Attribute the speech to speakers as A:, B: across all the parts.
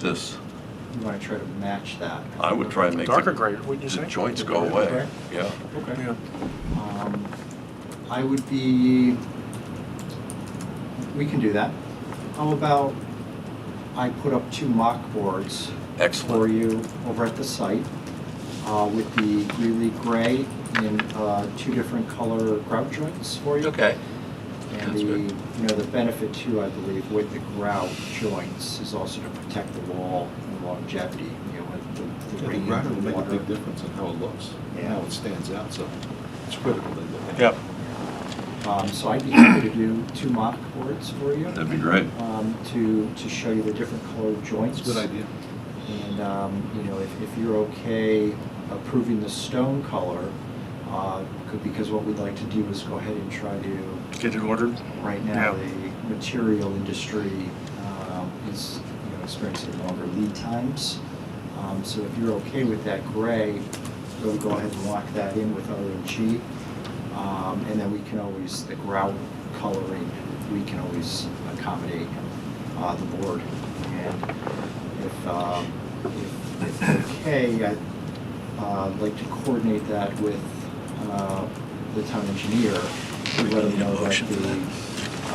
A: this,
B: You want to try to match that.
A: I would try and make. the-
C: Darker gray, wouldn't you say?
A: The joints go away,
B: Darker
A: yeah.
B: Okay.
C: Yeah.
B: Um, I would be, we can do that. How about I put up two mock boards for
A: Excellent.
B: you over at the site uh, with the Greeley gray in uh, two different color grout joints for you.
A: Okay,
B: And
A: That's
B: the,
A: good.
B: you know, the benefit too, I believe, with the grout joints is also to protect the wall and longevity, you know, with the- the
D: Yeah, The
B: rain,
D: grout will
B: the
D: make a
B: water.
D: big difference in how it looks, and
B: Yeah.
D: how it stands out, so it's critical they look at it.
C: Yep.
B: Um, So I'd be happy to do two mock boards for you
A: that'd be great.
B: um, to, to show you the different color joints.
D: It's a good idea.
B: And, um, you know, if, if you're okay approving the stone color, uh, could- because what we'd like to do is go ahead and try to
C: Get it ordered?
B: right now,
C: Yeah.
B: the material industry um, is, you know, experiencing longer lead times. Um, So if you're okay with that gray, we'll go ahead and lock that in with OMG. Um, And then we can always, the grout coloring, we can always accommodate uh, the board. And if, um, if- if okay, I'd uh, like to coordinate that with uh, the town engineer to let him know that the,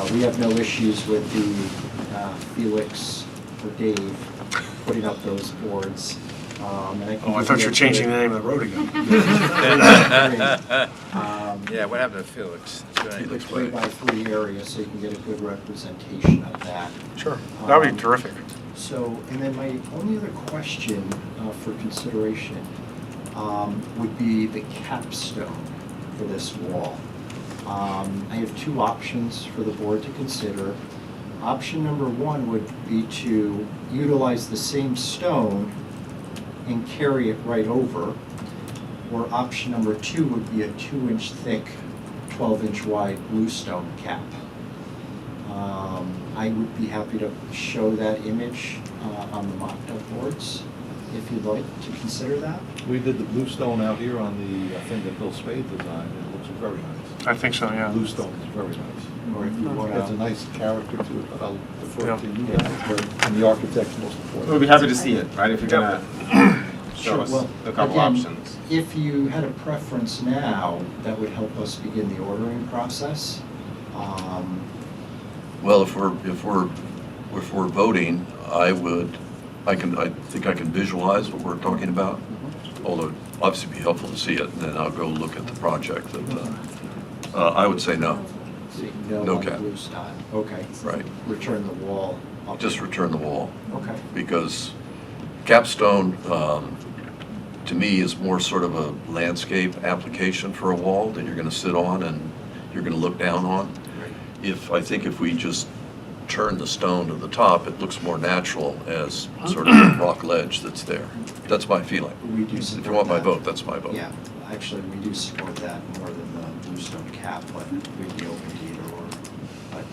B: uh, we have no issues with the uh, Felix or Dave putting up those boards. Um, and can
C: Oh, I
B: give
C: thought you were
B: a
C: changing the
B: good-
C: name of the road again.
B: Um,
E: Yeah, what happened to Felix? That's what I-
A: Felix.
B: The
A: looks
B: three
A: great.
B: by three area, so you can get a good representation of that.
C: Sure. That would
B: Um,
C: be terrific.
B: So, and then my only other question uh, for consideration um, would be the capstone for this wall. Um, I have two options for the board to consider. Option number one would be to utilize the same stone and carry it right over. Or option number two would be a two-inch thick, twelve-inch wide bluestone cap. Um, I would be happy to show that image uh, on the mocked-up boards, if you'd like to consider that.
D: We did the bluestone out here on the, I think, the Bill Spade design, and it looks very nice.
C: I think so, yeah.
D: Bluestone is very nice.
B: Or if you want
D: It's a
B: to,
D: nice character to it, but I'll defer
C: Yeah.
D: to you guys, but- and the architect's most important.
F: We'd be happy to see it, right, if you're
C: Yeah.
F: gonna show
B: Sure,
F: us
B: well,
F: a couple
B: again-
F: options.
B: if you had a preference now, that would help us begin the ordering process. Um,
A: Well, if we're, if we're, if we're voting, I would, I can, I think I can visualize what we're talking about.
B: Mm-hmm.
A: Although it'd obviously be helpful to see it, and then I'll go look at the project that, uh,
B: Mm-hmm.
A: uh, I would say no,
B: so you know
A: No
B: on the
A: cap.
B: bluestone. Okay,
A: right?
B: return the wall. up.
A: Just return the wall.
B: Okay,
A: because capstone, um, to me, is more sort of a landscape application for a wall that you're gonna sit on and you're gonna look down on. If, I think if we just turn the stone to the top, it looks more natural as sort of a rock ledge that's there. That's my feeling.
B: we do support
A: If you want my
B: that.
A: vote, that's my vote.
B: Yeah, actually, we do support that more than the bluestone cap, but we'd be open to either or. But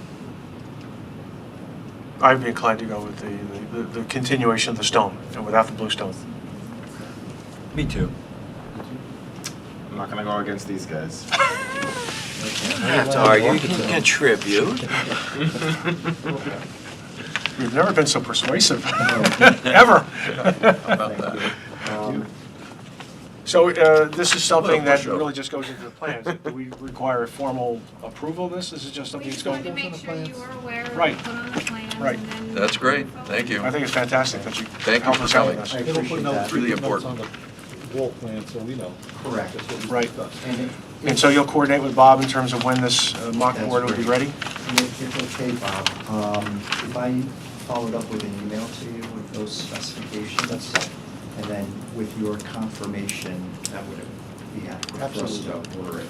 C: I'd be inclined to go with the, the- the continuation of the stone and without the blue stone.
E: Me too.
F: I'm not gonna go against these guys.
E: That's all right, you can contribute.
C: You've never been so persuasive, ever.
A: About that.
B: Um,
C: So uh, this is something that
A: Push up.
C: really just goes into the plans. Do we require a formal approval of this? This is just
G: We
C: something that's
G: just
C: going?
G: wanted to make sure you were aware of
C: Right.
G: what put on the plans and
C: Right.
G: then.
A: That's great, thank you.
C: I think it's fantastic that you
A: Thank you
C: helped
A: for
C: us out with
A: coming.
C: this.
B: I
D: It'll put
B: appreciate
D: notes-
B: that.
A: Really
D: notes
A: important.
D: on the Wall plan, so we know.
B: Correct.
D: That's what we
C: Right.
D: discussed.
B: And it-
C: And so you'll coordinate with Bob in terms of when this uh, mock
B: That's
C: board will be
B: great.
C: ready?
B: and if it's okay, Bob, um, if I followed up with an email to you with those specifications, and then with your confirmation, that would be adequate for us to
D: Absolutely.
B: order it.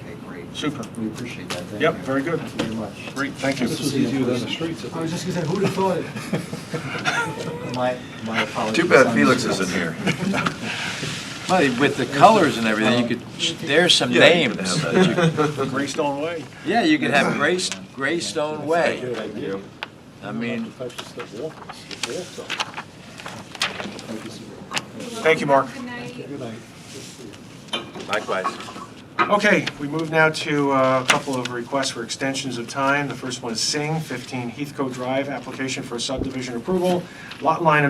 B: Okay, great.
C: Super.
B: We appreciate that, thank you.
C: Yep, very good.
B: Thank you very much.
C: Great, thank you.
D: This was easier than the streets.
B: I was just gonna say, who'd have thought it? My, my apologies.
A: Too bad
B: I'm
A: Felix
B: just-
A: isn't here.
E: Well, with the colors and everything, you could, there's some
A: Yeah, you could
E: names.
A: have that.
C: Greystone Way.
E: Yeah, you could have Grace, Greystone Way.
D: Good idea.
E: I mean,
D: The types of stuff, walk- the walk zone.
C: Thank you, Mark.
G: Good night.
D: Good night.
E: likewise.
C: Okay, we move now to uh, a couple of requests for extensions of time. The first one is Singh, 15 Heathcote Drive, application for subdivision approval, lot line